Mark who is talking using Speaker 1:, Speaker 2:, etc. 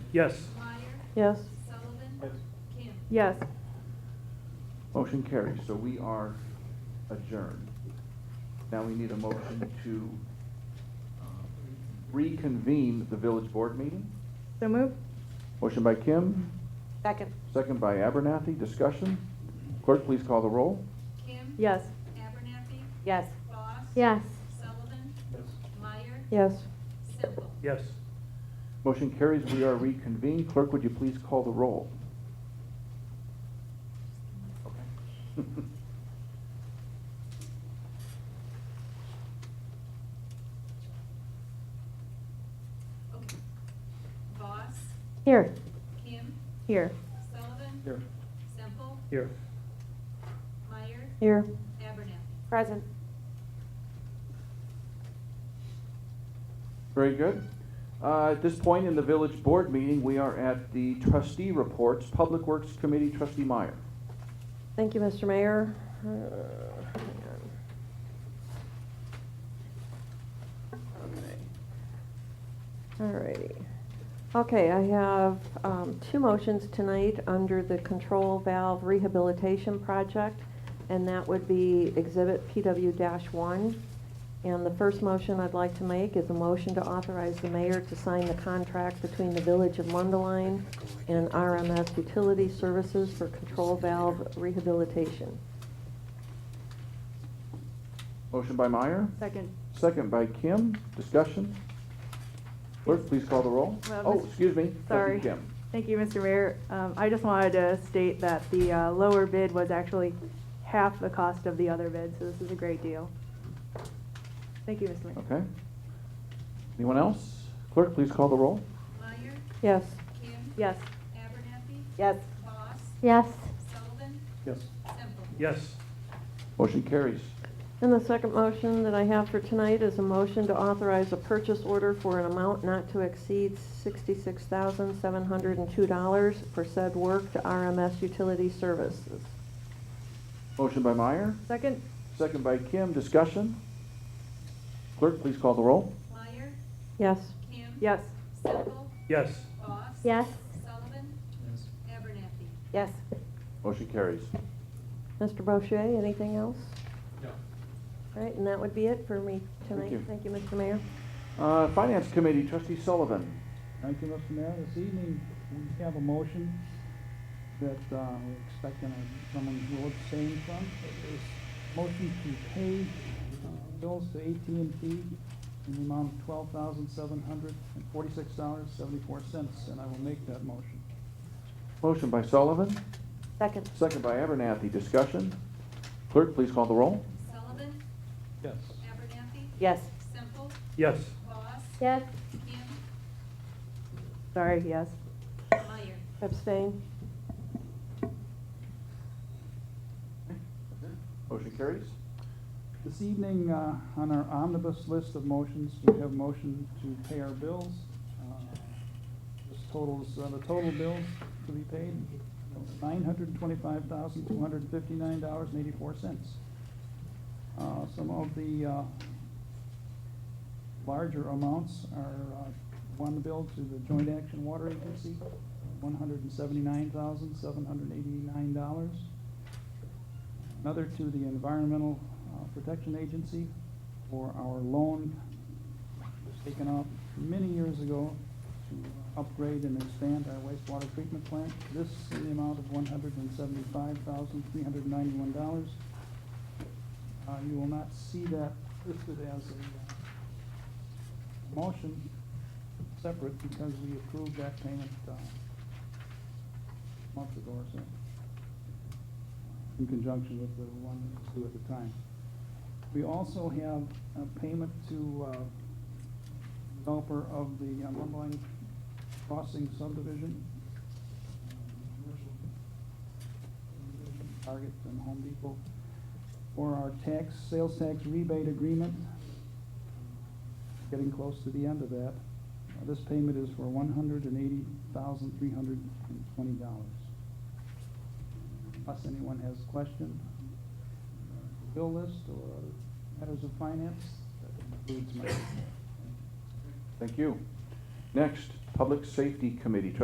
Speaker 1: Yes.
Speaker 2: Meyer,
Speaker 3: Yes.
Speaker 2: Sullivan, Kim.
Speaker 3: Yes.
Speaker 4: Motion carries, so we are adjourned. Now we need a motion to uh, reconvene the village board meeting.
Speaker 3: So move.
Speaker 4: Motion by Kim,
Speaker 3: Second.
Speaker 4: second by Abernathy, discussion. Clerk, please call the roll.
Speaker 2: Kim.
Speaker 3: Yes.
Speaker 2: Abernathy,
Speaker 3: Yes.
Speaker 2: Foss.
Speaker 5: Yes.
Speaker 2: Sullivan, Meyer,
Speaker 3: Yes.
Speaker 2: Semple.
Speaker 1: Yes.
Speaker 4: Motion carries, we are reconvened. Clerk, would you please call the roll? Okay.
Speaker 2: Okay. Voss,
Speaker 3: Here.
Speaker 2: Kim,
Speaker 3: Here.
Speaker 2: Sullivan.
Speaker 4: Here.
Speaker 2: Semple,
Speaker 1: Here.
Speaker 2: Meyer,
Speaker 3: Here.
Speaker 2: Abernathy.
Speaker 3: Present.
Speaker 4: Very good. Uh, At this point in the village board meeting, we are at the trustee reports. Public Works Committee, trustee Meyer.
Speaker 3: Thank you, Mr. Mayor. Uh, hang on. Alrighty. Okay, I have um, two motions tonight under the control valve rehabilitation project, and that would be Exhibit PW-1. And the first motion I'd like to make is a motion to authorize the mayor to sign the contract between the Village of Mundaline and RMS Utility Services for control valve rehabilitation.
Speaker 4: Motion by Meyer,
Speaker 5: Second.
Speaker 4: second by Kim. Discussion. Clerk, please call the roll.
Speaker 5: Well,
Speaker 4: Oh,
Speaker 5: Mr.
Speaker 4: excuse me. trustee
Speaker 5: Sorry.
Speaker 4: Kim.
Speaker 5: Thank you, Mr. Mayor. Um, I just wanted to state that the uh, lower bid was actually half the cost of the other bid, so this is a great deal. Thank you, Mr. Mayor.
Speaker 4: Okay. Anyone else? Clerk, please call the roll.
Speaker 2: Meyer,
Speaker 3: Yes.
Speaker 2: Kim.
Speaker 5: Yes.
Speaker 2: Abernathy,
Speaker 3: Yes.
Speaker 2: Voss,
Speaker 5: Yes.
Speaker 2: Sullivan,
Speaker 1: Yes.
Speaker 2: Semple.
Speaker 1: Yes.
Speaker 4: Motion carries.
Speaker 3: And the second motion that I have for tonight is a motion to authorize a purchase order for an amount not to exceed sixty-six thousand, seven hundred and two dollars for said work to RMS Utility Services.
Speaker 4: Motion by Meyer,
Speaker 5: Second?
Speaker 4: second by Kim. Discussion. Clerk, please call the roll.
Speaker 2: Meyer,
Speaker 3: Yes.
Speaker 2: Kim.
Speaker 5: Yes.
Speaker 2: Semple,
Speaker 1: Yes.
Speaker 2: Voss.
Speaker 5: Yes.
Speaker 2: Sullivan, Abernathy.
Speaker 3: Yes.
Speaker 4: Motion carries.
Speaker 3: Mr. Boucher, anything else?
Speaker 1: No.
Speaker 3: All right, and that would be it for me
Speaker 4: Thank
Speaker 3: tonight.
Speaker 4: you.
Speaker 3: Thank you, Mr. Mayor.
Speaker 4: Uh, Finance Committee, trustee Sullivan.
Speaker 6: Thank you, Mr. Mayor. This evening, we have a motion that uh, we're expecting a- someone to abstain from. It is motion to pay uh, bills to at and T in the amount of twelve thousand seven hundred and forty-six dollars, seventy-four cents, and I will make that motion.
Speaker 4: Motion by Sullivan,
Speaker 3: Second.
Speaker 4: second by Abernathy. Discussion. Clerk, please call the roll.
Speaker 2: Sullivan,
Speaker 6: Yes.
Speaker 2: Abernathy,
Speaker 3: Yes.
Speaker 2: Semple,
Speaker 1: Yes.
Speaker 2: Voss,
Speaker 5: Yes.
Speaker 2: Kim,
Speaker 5: Sorry, yes.
Speaker 2: Meyer.
Speaker 3: Abstain.
Speaker 4: Motion carries.
Speaker 6: This evening, uh, on our omnibus list of motions, we have a motion to pay our bills. Uh, This totals, uh, the total bills to be paid, nine hundred and twenty-five thousand, two hundred and fifty-nine dollars and eighty-four cents. Some of the uh, larger amounts are, uh, one bill to the Joint Action Water Agency, one hundred and seventy-nine thousand, seven hundred and eighty-nine dollars another to the Environmental uh, Protection Agency for our loan that was taken out many years ago to upgrade and expand our wastewater treatment plant. This in the amount of one hundred and seventy-five thousand, three hundred and ninety-one dollars. Uh, You will not see that listed as a uh, motion separate because we approved that payment uh, a month ago or so in conjunction with the one that was due at the time. We also have a payment to uh, developer of the uh, Mundelein Crossing subdivision. Target and Home Depot for our tax, sales tax rebate agreement. Getting close to the end of that. Uh, This payment is for one hundred and eighty thousand, three hundred and twenty dollars unless anyone has a question. Bill list or matters of finance, that concludes my report.
Speaker 4: Thank you. Next, Public Safety Committee, trustee